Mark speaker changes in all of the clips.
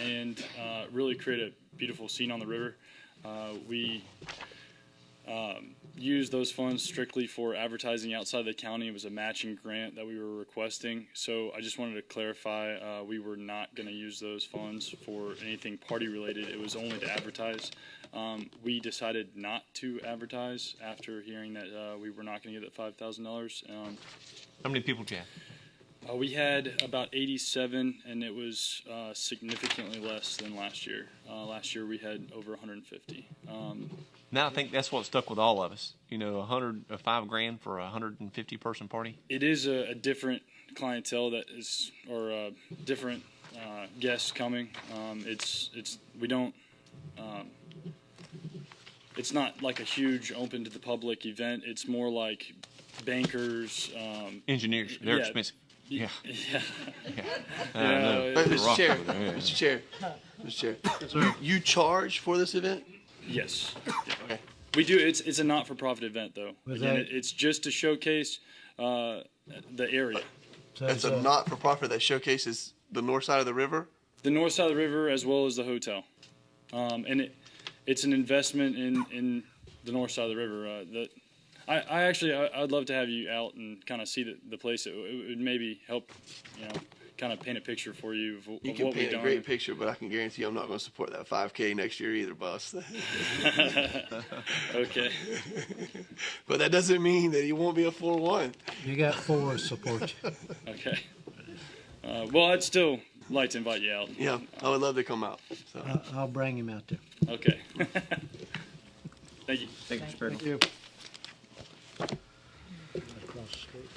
Speaker 1: and uh, really create a beautiful scene on the river. Uh, we um, use those funds strictly for advertising outside the county. It was a matching grant that we were requesting. So I just wanted to clarify, uh, we were not going to use those funds for anything party related. It was only to advertise. Um, we decided not to advertise after hearing that uh, we were not going to get that five thousand dollars. Um,
Speaker 2: How many people do you have?
Speaker 1: uh, we had about 87, and it was uh, significantly less than last year. Uh, last year we had over 150. Um,
Speaker 2: Now I think that's what stuck with all of us. You know, a hundred, a five grand for a hundred and fifty person party.
Speaker 1: it is a, a different clientele that is or uh, different uh, guests coming um, it's it's we don't um, it's not like a huge open to the public event it's more like bankers um,
Speaker 2: Engineers, they're
Speaker 1: Yeah.
Speaker 2: expensive. Yeah,
Speaker 1: yeah
Speaker 2: I know.
Speaker 1: Uh,
Speaker 3: But Mr.
Speaker 2: rock
Speaker 3: Chair,
Speaker 2: over there, yeah.
Speaker 3: Mr. Chair, Mr. Chair, you, you charge for this event?
Speaker 1: yes
Speaker 3: Okay.
Speaker 1: We do. It's it's a not for profit event though.
Speaker 4: Was
Speaker 1: Again,
Speaker 4: that-
Speaker 1: it, it's just to showcase uh, the area,
Speaker 4: So
Speaker 3: That's a
Speaker 4: it's
Speaker 3: not-for-profit that showcases the north side of the river.
Speaker 1: the north side of the river as well as the hotel, um, and it it's an investment in in the north side of the river. Uh, that I, I actually I, I'd love to have you out and kind of see the, the place. It, it would maybe help you know kind of paint a picture for you of,
Speaker 3: You
Speaker 1: of
Speaker 3: can
Speaker 1: what we've
Speaker 3: paint a
Speaker 1: done.
Speaker 3: great picture, but I can guarantee I'm not going to support that 5K next year either, boss.
Speaker 1: okay.
Speaker 3: But that doesn't mean that he won't be a 4-1.
Speaker 4: a- you got four to support you.
Speaker 1: Okay. Uh, well, I'd still like to invite you out.
Speaker 3: Yeah, I would love to come out. So.
Speaker 4: I- I'll bring him out there.
Speaker 1: Okay. Thank you.
Speaker 5: Thank you, Mr. Perkins.
Speaker 4: you. Across the street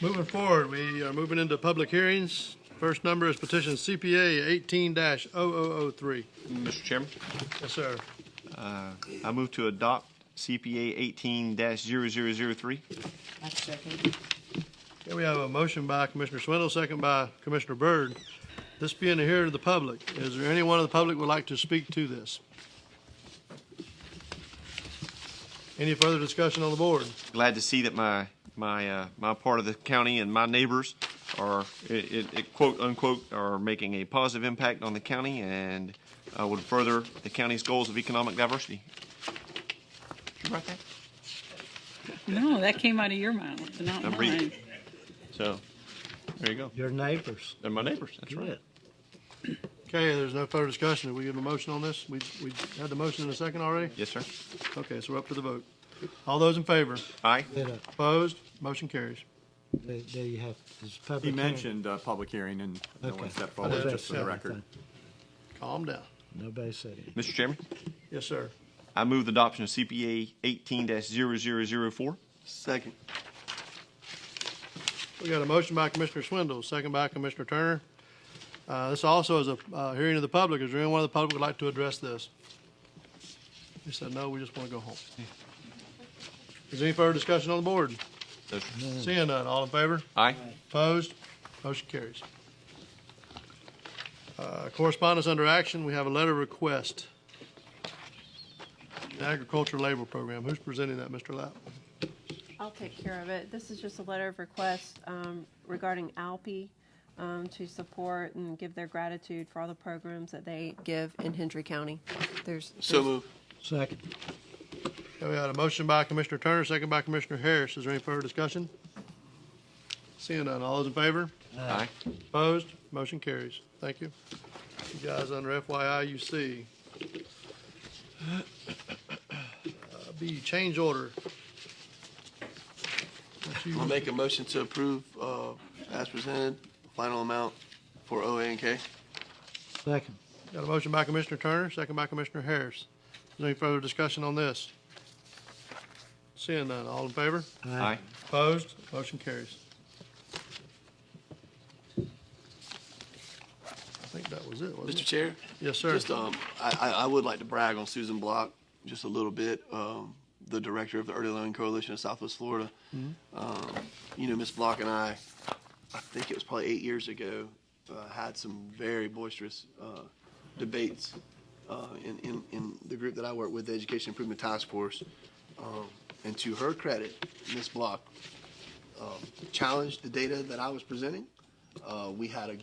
Speaker 6: Moving forward, we are moving into public hearings. First number is petition CPA eighteen oh 3
Speaker 2: Mr. Chairman,
Speaker 6: Yes, sir.
Speaker 2: I move to adopt CPA eighteen 3
Speaker 5: I second.
Speaker 6: Okay, we have a motion by Commissioner Swindle, second by Commissioner Byrd. This being the hearing of the public, is there anyone of the public would like to speak to this? Any further discussion on the board?
Speaker 2: Glad to see that my my uh, my part of the county and my neighbors are it, it, it quote unquote are making a positive impact on the county and uh, would further the county's goals of economic diversity. You write that?
Speaker 7: No, that came out of your mouth, not
Speaker 2: I'm reading.
Speaker 7: mine.
Speaker 2: So there you go.
Speaker 4: Your neighbors.
Speaker 2: They're my neighbors. That's right.
Speaker 4: Good.
Speaker 6: Okay, there's no further discussion. Have we given a motion on this? We, we had the motion in a second already?
Speaker 2: Yes, sir.
Speaker 6: Okay, so we're up to the vote. All those in favor?
Speaker 2: Aye.
Speaker 4: Did a-
Speaker 6: Opposed? Motion carries.
Speaker 4: they- they have- is public
Speaker 8: He
Speaker 4: hearing-
Speaker 8: mentioned uh, public hearing and no
Speaker 4: Okay.
Speaker 8: one stepped
Speaker 4: Nobody
Speaker 8: forward, just for
Speaker 4: said
Speaker 8: the record.
Speaker 4: anything.
Speaker 6: Calm down.
Speaker 4: Nobody said anything.
Speaker 2: Mr. Chairman,
Speaker 6: Yes, sir.
Speaker 2: I move the adoption of CPA eighteen 4
Speaker 3: Second.
Speaker 6: We got a motion by Commissioner Swindle, second by Commissioner Turner. Uh, This also is a uh, hearing of the public. Is there anyone of the public would like to address this? They said, no, we just want to go home. Is there any further discussion on the board? Seeing none, all in favor?
Speaker 2: Aye.
Speaker 6: Opposed? Motion carries. Uh, Correspondence under action, we have a letter request. Agriculture Labor Program. Who's presenting that, Mr. Lapp?
Speaker 9: I'll take care of it. This is just a letter of request um, regarding Alpi um, to support and give their gratitude for all the programs that they give in Hendry County. There's,
Speaker 3: So move.
Speaker 4: Second.
Speaker 6: Okay, We had a motion by Commissioner Turner, second by Commissioner Harris. Is there any further discussion? Seeing none, all those in favor?
Speaker 2: Aye.
Speaker 6: Opposed? Motion carries. Thank you. You guys under FYI, you see. Uh, B, change order. That's you.
Speaker 3: I'll make a motion to approve uh, as presented, final amount for OA and K.
Speaker 4: Second.
Speaker 6: Got a motion by Commissioner Turner, second by Commissioner Harris. Is there any further discussion on this? Seeing none, all in favor?
Speaker 2: Aye.
Speaker 6: Opposed? Motion carries. I think that was it, wasn't
Speaker 3: Mr.
Speaker 6: it?
Speaker 3: Chair?
Speaker 6: Yes, sir.
Speaker 3: Just, um, I, I, I would like to brag on Susan Block just a little bit, um, the director of the Early Learning Coalition of Southwest Florida.
Speaker 6: Mm-hmm.
Speaker 3: Um, you know, Miss Block and I, I think it was probably eight years ago, uh, had some very boisterous uh, debates uh, in, in, in the group that I work with, the Education Improvement Task Force. Um, and to her credit, Miss Block um, challenged the data that I was presenting. Uh, we had a